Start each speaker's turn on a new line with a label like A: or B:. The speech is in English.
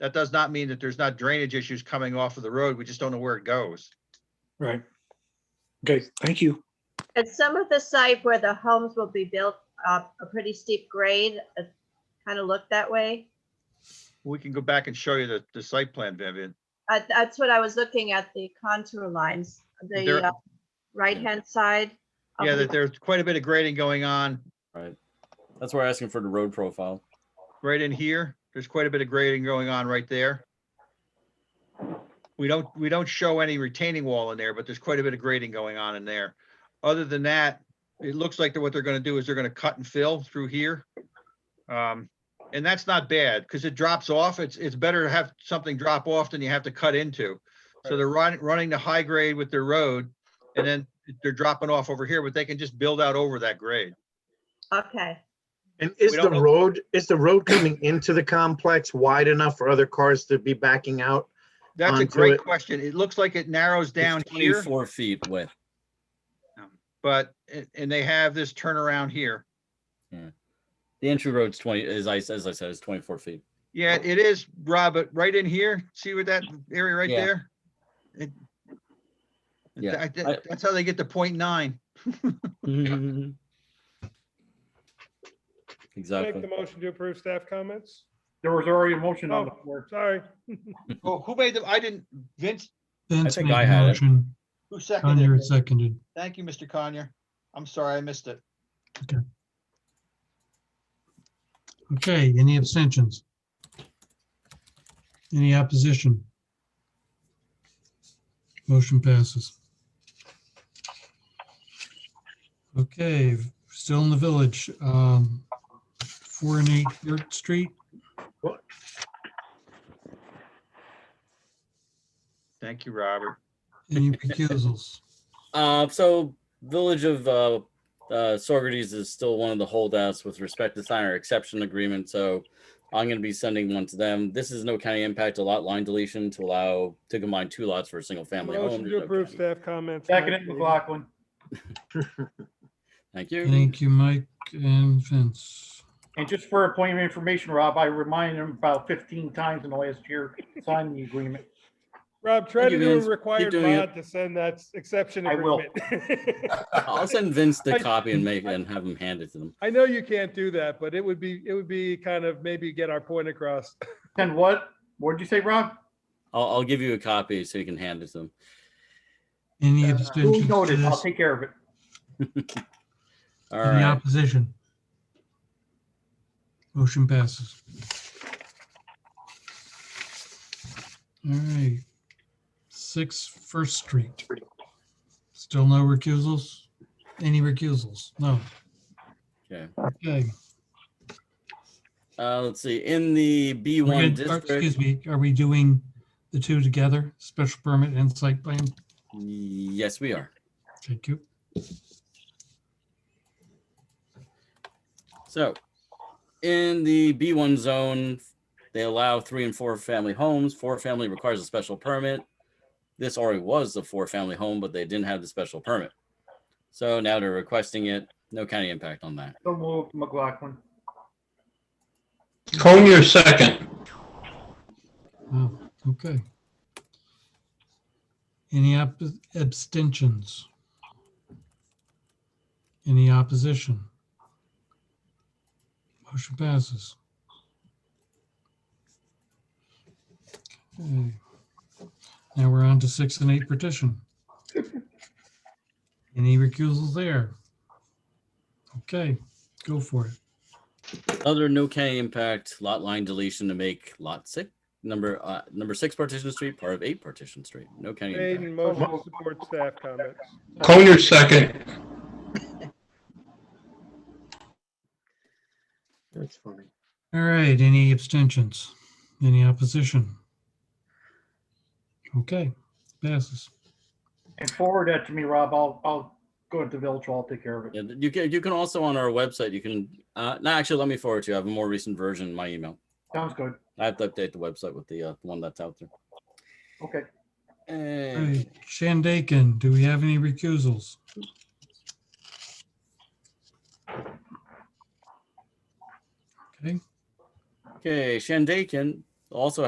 A: that does not mean that there's not drainage issues coming off of the road. We just don't know where it goes.
B: Right. Okay, thank you.
C: And some of the site where the homes will be built, uh, a pretty steep grade, uh, kind of looked that way.
A: We can go back and show you the, the site plan, Vivian.
C: Uh, That's what I was looking at, the contour lines, the
A: There-
C: uh, right-hand side. of
A: Yeah,
C: the-
A: that there's quite a bit of grading going on
D: Right. That's why we're asking for the road profile.
A: right in here. There's quite a bit of grading going on right there. We don't, we don't show any retaining wall in there, but there's quite a bit of grading going on in there. Other than that, it looks like that what they're gonna do is they're gonna cut and fill through here. Um, and that's not bad, because it drops off. It's, it's better to have something drop off than you have to cut into. So they're running, running the high grade with their road, and then they're dropping off over here, but they can just build out over that grade.
C: Okay,
E: And is
A: We
E: the
A: don't know-
E: road, is the road coming into the complex wide enough for other cars to be backing out?
A: That's a
E: onto
A: great
E: it.
A: question. It looks like it narrows
D: It's
A: down here.
D: Twenty-four feet width.
A: but, a- and they have this turnaround here.
D: The entry road's twenty, as I, as I said, is twenty-four feet.
A: Yeah, it is, Rob, but right in here, see with that area right
D: Yeah.
A: there? It-
D: Yeah,
A: I thi-
D: I-
A: That's how they get to point nine.
F: Make the
D: Exactly.
F: motion to approve staff comments?
G: There was already a motion on the
F: Oh.
G: floor.
F: Sorry.
A: Oh, who made them? I didn't, Vince,
H: Vince
D: think
H: made
D: I
H: the
D: had it.
H: motion.
A: who seconded
H: Conyer
A: it?
H: seconded.
A: Thank you, Mr. Conyer. I'm sorry, I missed it.
H: Okay, any abstentions? Any opposition? Motion passes. Okay, still in the village, um, four and eight Yurt Street.
A: Thank you, Robert.
H: Any recusals?
D: Uh, so Village of, uh, uh, Sorgerties is still one of the holdouts with respect to sign our exception agreement, so I'm gonna be sending one to them. This is no county impact, a lot line deletion to allow, to combine two lots for a single family home.
F: Motion
D: There's
F: to
D: no
F: approve
D: county-
F: staff comments.
G: Second it, McLaughlin.
D: Thank you.
H: Thank you, Mike and Vince.
G: And just for a point of information, Rob, I reminded him about fifteen times in the last year, signing the agreement.
F: Rob, try
D: Thank
F: to
D: you,
F: do
D: Vince.
F: a
D: Keep
F: required
D: doing it.
F: mod to send that exception
G: I will.
F: agreement.
D: I'll send Vince the
F: I-
D: copy and make, and have him hand it to them.
F: I know you can't do that, but it would be, it would be kind of maybe get our point across.
G: Then what? What'd you say, Rob?
D: I'll, I'll give you a copy so you can hand it to them.
H: Any
G: Duly
H: abstentions? to
G: noted. I'll
H: this?
G: take care of it.
D: All
H: Any
D: right.
H: opposition? Motion passes. All right. Six First Street. Still no recusals? Any recusals? No.
D: Okay.
H: Okay.
D: Uh, let's see, in the B
H: We're
D: one
H: gonna- or,
D: district,
H: Excuse me, are we doing the two together, special permit and site plan?
D: yes, we are.
H: Thank you.
D: So in the B one zone, they allow three and four family homes. Four family requires a special permit. This already was a four family home, but they didn't have the special permit. So now they're requesting it. No county impact on that.
G: So moved, McLaughlin.
I: Conyer second.
H: Wow, okay. Any op- abstentions? Any opposition? Motion passes. Okay. Now we're on to six and eight petition. Any recusals there? Okay, go for it.
D: Other no county impact lot line deletion to make lot six, number, uh, number six partition street, part of eight partition street. No county
F: Made
D: impact.
F: and motion to support staff comments.
I: Conyer second.
E: That's funny.
H: All right, any abstentions? Any opposition? Okay, passes.
G: And forward that to me, Rob. I'll, I'll go into Village Hall. I'll take care of it.
D: And you can, you can also on our website, you can, uh, no, actually, let me forward to you. I have a more recent version in my email.
G: Sounds good.
D: I have to update the website with the, uh, one that's out there.
G: Okay.
H: All
D: And
H: right, Shandaken, do we have any recusals? Okay.
D: Okay, Shandaken also